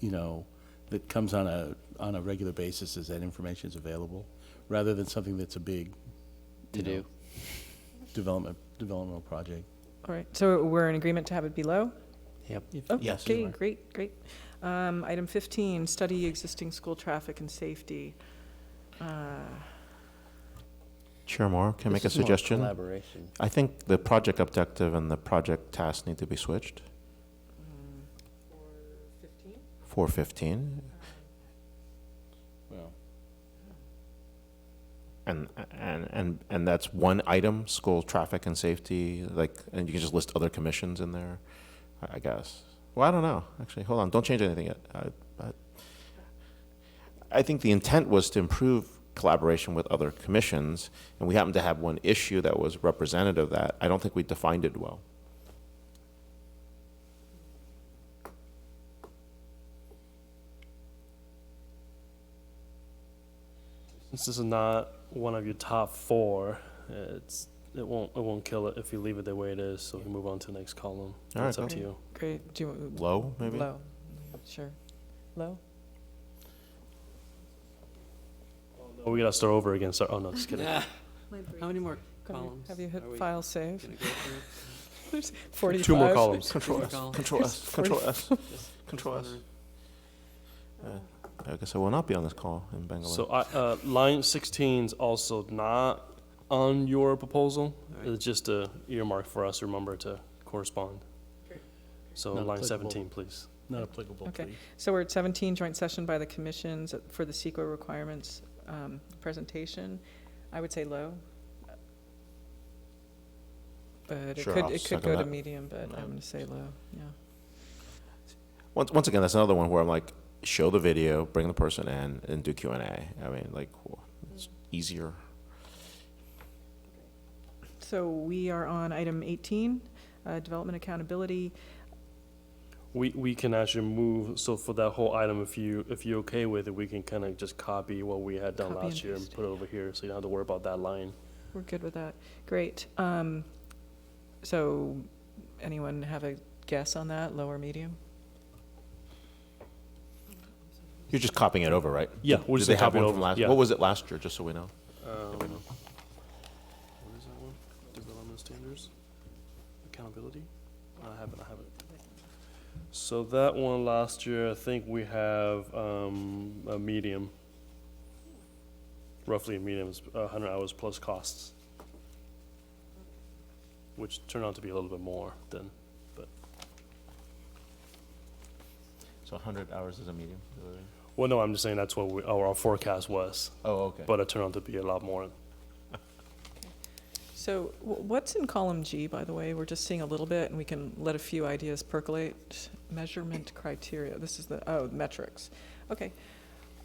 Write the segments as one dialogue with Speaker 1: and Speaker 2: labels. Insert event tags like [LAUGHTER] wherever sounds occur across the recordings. Speaker 1: you know, that comes on a, on a regular basis is that information is available, rather than something that's a big
Speaker 2: to do.
Speaker 1: development, developmental project.
Speaker 3: All right, so we're in agreement to have it below?
Speaker 2: Yep.
Speaker 1: Yes, you
Speaker 3: Okay,
Speaker 1: are.
Speaker 3: great, great. Um, Item 15, study existing school traffic and safety. Uh,
Speaker 4: Chair Moore, can I make a
Speaker 2: This is more
Speaker 4: suggestion?
Speaker 2: Collaboration.
Speaker 4: I think the project objective and the project task need to be switched for 15.
Speaker 1: Well,
Speaker 4: And, and, and, and that's one item, school traffic and safety, like, and you can just list other commissions in there, I- I guess. Well, I don't know, actually, hold on, don't change anything yet. I- I- I think the intent was to improve collaboration with other commissions, and we happened to have one issue that was representative of that. I don't think we defined it well.
Speaker 5: Since this is not one of your top four, it's it won't it won't kill it if you leave it the way it is. So we move on to the next column.
Speaker 4: All right,
Speaker 5: it's up
Speaker 3: go.
Speaker 5: to you.
Speaker 3: Great, do you,
Speaker 4: Low, maybe?
Speaker 3: low, sure. Low?
Speaker 5: Oh, we gotta start over again. Sorry. Oh no, just kidding.
Speaker 2: How many more
Speaker 3: Have you-
Speaker 2: columns?
Speaker 3: Have you
Speaker 2: are we
Speaker 3: hit file save?
Speaker 2: gonna
Speaker 3: [LAUGHS]
Speaker 2: go through?
Speaker 5: Two
Speaker 3: 45.
Speaker 5: more columns.
Speaker 4: Control
Speaker 2: Control
Speaker 4: S,
Speaker 2: column.
Speaker 4: Control [LAUGHS] S, Control S.
Speaker 2: Just- just
Speaker 4: Control S.
Speaker 2: wondering.
Speaker 4: Uh, I guess I will not be on this call in Bangalore.
Speaker 5: So I, uh, line 16 is also not on your proposal.
Speaker 2: All right.
Speaker 5: It's just a earmark for us. to Remember to correspond. So
Speaker 1: Not
Speaker 5: line
Speaker 1: applicable.
Speaker 5: 17, please.
Speaker 1: Not applicable,
Speaker 3: Okay.
Speaker 1: please.
Speaker 3: [LAUGHS] So we're at 17, joint session by the commissions for the CEQA requirements um, presentation. I would say low. But it
Speaker 4: Sure,
Speaker 3: could,
Speaker 4: I'll
Speaker 3: it could
Speaker 4: second
Speaker 3: go to
Speaker 4: that.
Speaker 3: medium, but I'm
Speaker 4: Um,
Speaker 3: going to say low, yeah.
Speaker 4: once, once again, that's another one where I'm like, show the video, bring the person in, and do Q and A. I mean, like, w- it's easier.
Speaker 3: So we are on item 18, uh, development accountability.
Speaker 5: We, we can actually move, so for that whole item, if you, if you're okay with it, we can kind of just copy what we had done
Speaker 3: Copy and
Speaker 5: last year and
Speaker 3: paste.
Speaker 5: put it over here, so you don't have to worry about that line.
Speaker 3: We're good with that. Great. Um, So anyone have a guess on that, low or medium?
Speaker 4: You're just copying it over, right?
Speaker 5: Yeah,
Speaker 4: Did,
Speaker 5: we're just
Speaker 4: did they
Speaker 5: gonna
Speaker 4: have
Speaker 5: copy it
Speaker 4: one from
Speaker 5: over,
Speaker 4: last?
Speaker 5: yeah.
Speaker 4: What was it last year? Just so we know.
Speaker 5: Um, What is that one? Development standards, accountability? I have it, I have it. So that one last year, I think we have, um, a medium. Roughly a medium, it's a hundred hours plus costs. Which turned out to be a little bit more than
Speaker 4: So 100 hours is a medium.
Speaker 5: Well, no, I'm just saying that's what we, our, our forecast was,
Speaker 4: Oh, okay.
Speaker 5: but it turned out to be a lot more.
Speaker 3: So wh- what's in column G, by the way? We're just seeing a little bit, and we can let a few ideas percolate. Measurement criteria, this is the, oh, metrics. Okay.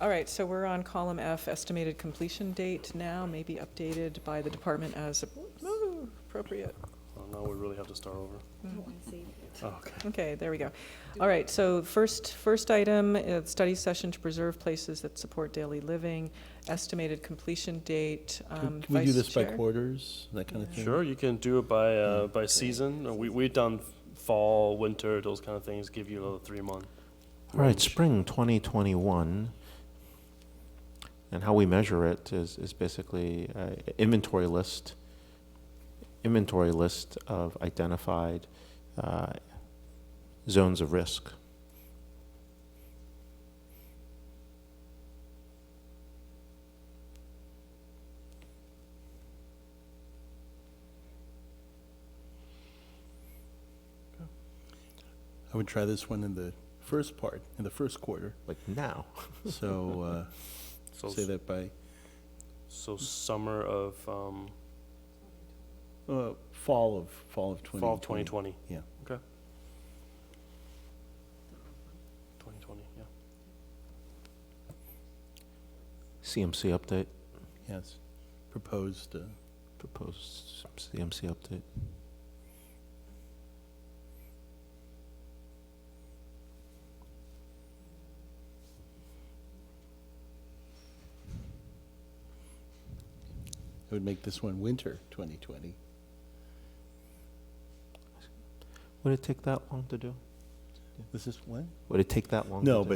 Speaker 3: All right, so we're on column F, estimated completion date now, may be updated by the department as ooh, appropriate.
Speaker 5: Well, now we really have to start over. Oh, Okay.
Speaker 3: Okay, there we go. All right, so first, first item, uh, study session to preserve places that support daily living, estimated completion date.
Speaker 1: Can
Speaker 3: um,
Speaker 1: can we do
Speaker 3: Vice
Speaker 1: this by
Speaker 3: Chair?
Speaker 1: quarters, that kind of thing?
Speaker 5: Sure, you can do it by, uh,
Speaker 1: Mm,
Speaker 5: by season. Uh, We, we've done fall, winter, those kind of things, give you a little three month.
Speaker 4: All right, spring 2021. And how we measure it is, is basically uh, inventory list, inventory list of identified uh, zones of risk.
Speaker 1: I would try this one in the first part, in the first quarter,
Speaker 4: Like now.
Speaker 1: so, uh,
Speaker 5: So,
Speaker 1: say that by,
Speaker 5: so summer of, um,
Speaker 1: uh, fall of, fall of twenty.
Speaker 5: fall of twenty twenty.
Speaker 1: yeah.
Speaker 5: Okay. Twenty twenty, yeah.
Speaker 4: CMC update,
Speaker 1: Yes, proposed, uh,
Speaker 4: proposed CMC update.
Speaker 1: I would make this one winter twenty twenty.
Speaker 4: Would it take that long to do?
Speaker 1: This is when?
Speaker 4: Would it take that long?
Speaker 1: No,
Speaker 4: to do?
Speaker 1: but